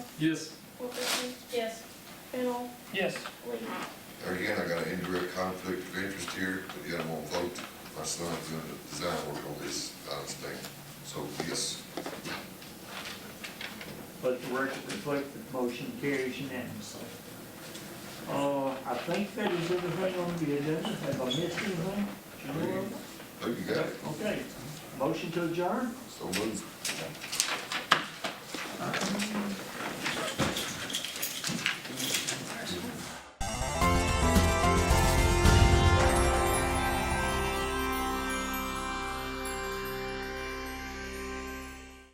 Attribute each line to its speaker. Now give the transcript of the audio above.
Speaker 1: Yes.
Speaker 2: Wilkerson,
Speaker 3: Yes.
Speaker 2: Fennel,
Speaker 1: Yes.
Speaker 2: Lee.
Speaker 4: There again, I got an indirect conflict of interest here, but yet I won't vote. My son's doing the design work on this, I understand. So, yes,
Speaker 5: Let the record reflect that motion carries unanimously. Uh, I think that is everything on the agenda. Have I missed anything?
Speaker 4: oh, you got it.
Speaker 5: Okay, motion to adjourn?
Speaker 4: So moved.